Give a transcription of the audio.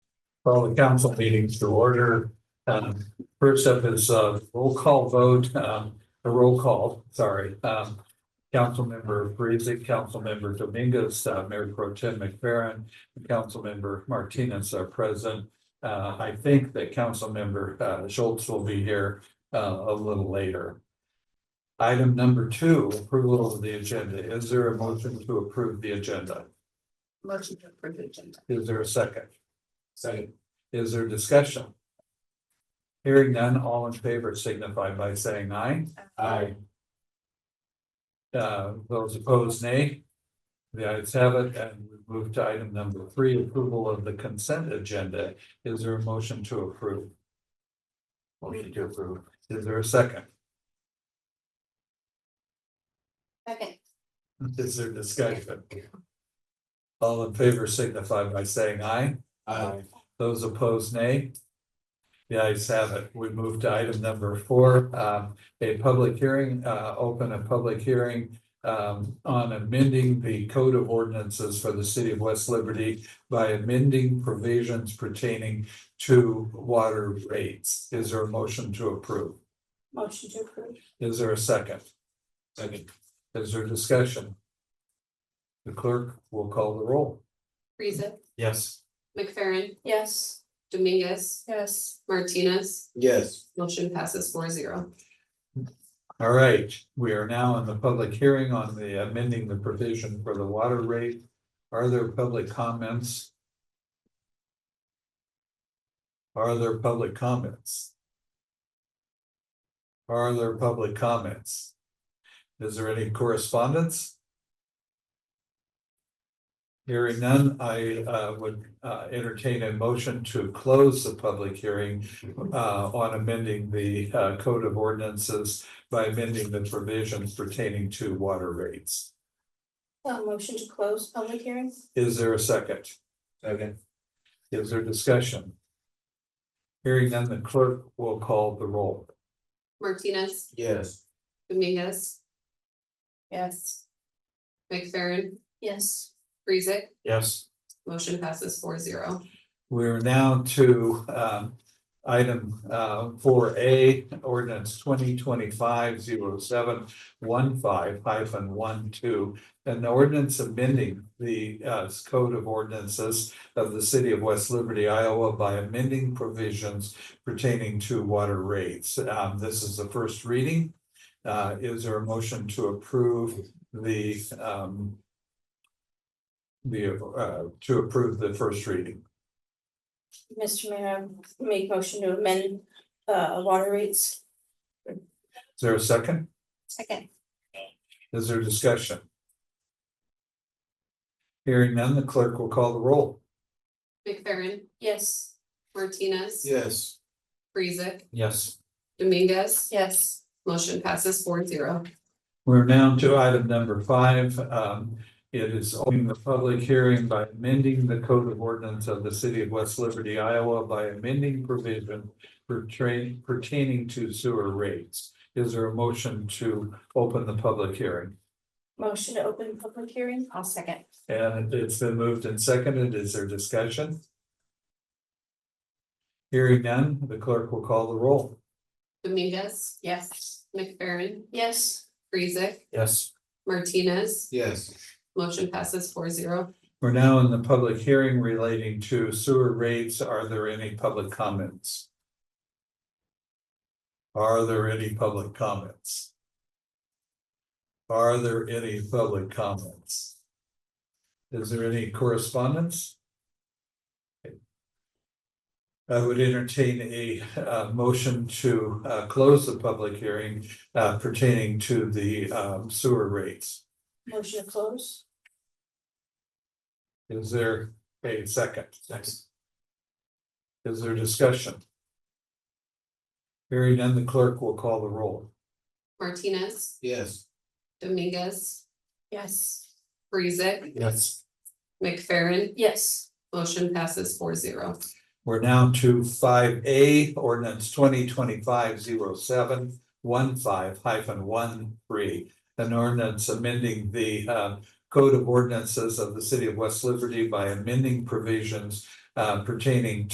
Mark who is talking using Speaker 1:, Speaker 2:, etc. Speaker 1: Call the council meetings to order. Um, First up is a roll call vote, um, a roll call, sorry. Um, Councilmember Council Councilmember Dominguez, uh, Mayor Pro Tem McFerrin, and Councilmember Martinez are present. Uh, I think that Councilmember uh, Schultz will be here uh, a little later. Item number two, approval of the agenda. Is there a motion to approve the agenda?
Speaker 2: Motion to approve the agenda.
Speaker 1: Is there a second? Second. Is there discussion? Hearing none, all in favor signify by saying aye. Uh, those opposed, nay. The ayes have it, and we move to item number three, approval of the consent agenda. Is there a motion to approve? Motion to approve. Is there a second?
Speaker 2: Second.
Speaker 1: Is there discussion? All in favor signify by saying aye.
Speaker 2: Aye.
Speaker 1: Those opposed, nay. The ayes have it. We move to item number four, um, a public hearing, uh, open a public hearing um, on amending the code of ordinances for the city of West Liberty by amending provisions pertaining to water rates. Is there a motion to approve?
Speaker 2: Motion to approve.
Speaker 1: Is there a second? Second. Is there discussion? The clerk will call the roll.
Speaker 3: Friesen,
Speaker 1: Yes.
Speaker 3: McFerrin,
Speaker 2: Yes.
Speaker 3: Dominguez,
Speaker 2: Yes.
Speaker 3: Martinez,
Speaker 4: Yes,
Speaker 3: motion passes four zero.
Speaker 1: All right, we are now in the public hearing on the amending the provision for the water rate. Are there public comments? Are there public comments? Are there public comments? Is there any correspondence? Hearing none, I uh, would uh, entertain a motion to close the public hearing uh, on amending the uh, code of ordinances by amending the provisions pertaining to water rates.
Speaker 2: Uh, motion to close public hearing?
Speaker 1: Is there a second?
Speaker 4: Second.
Speaker 1: Is there discussion? Hearing none, the clerk will call the roll.
Speaker 3: Martinez,
Speaker 4: yes,
Speaker 3: Dominguez,
Speaker 2: Yes.
Speaker 3: McFerrin,
Speaker 2: Yes.
Speaker 3: Friesen,
Speaker 1: Yes.
Speaker 3: motion passes four zero.
Speaker 1: We're now to um item uh four A, ordinance twenty twenty-five zero seven one five hyphen one two. An ordinance amending the uh code of ordinances of the city of West Liberty, Iowa by amending provisions pertaining to water rates. Um, this is the first reading. Uh, is there a motion to approve the um the uh to approve the first reading?
Speaker 2: Mr. Mayor, I make motion to amend, uh, water rates.
Speaker 1: Is there a second?
Speaker 2: Second.
Speaker 1: Is there discussion? Hearing none, the clerk will call the roll.
Speaker 3: McFerrin,
Speaker 2: Yes.
Speaker 3: Martinez,
Speaker 4: yes,
Speaker 3: Friesen,
Speaker 1: Yes.
Speaker 3: Dominguez,
Speaker 2: Yes.
Speaker 3: motion passes four zero.
Speaker 1: We're now to item number five. Um, it is opening the public hearing by amending the code of ordinance of the city of West Liberty, Iowa by amending provision pertain- pertaining to sewer rates. Is there a motion to open the public hearing?
Speaker 2: Motion to open public hearing? I'll second.
Speaker 1: And it's been moved and seconded. Is there discussion? Hearing none, the clerk will call the roll.
Speaker 3: Dominguez,
Speaker 2: Yes.
Speaker 3: McFerrin,
Speaker 2: Yes.
Speaker 3: Friesen,
Speaker 1: Yes.
Speaker 3: Martinez,
Speaker 4: yes,
Speaker 3: motion passes four zero.
Speaker 1: We're now in the public hearing relating to sewer rates. Are there any public comments? Are there any public comments? Are there any public comments? Is there any correspondence? I would entertain a uh, motion to uh, close the public hearing uh, pertaining to the um, sewer rates.
Speaker 2: Motion to close?
Speaker 1: Is there a second? Next. Is there discussion? Hearing none, the clerk will call the roll.
Speaker 3: Martinez,
Speaker 4: yes.
Speaker 3: Dominguez,
Speaker 2: Yes.
Speaker 3: Friesen,
Speaker 4: Yes.
Speaker 3: McFerrin,
Speaker 2: Yes.
Speaker 3: motion passes four zero.
Speaker 1: We're now to five A, ordinance twenty twenty-five zero seven one five hyphen one three. An ordinance amending the uh code of ordinances of the city of West Liberty by amending provisions uh pertaining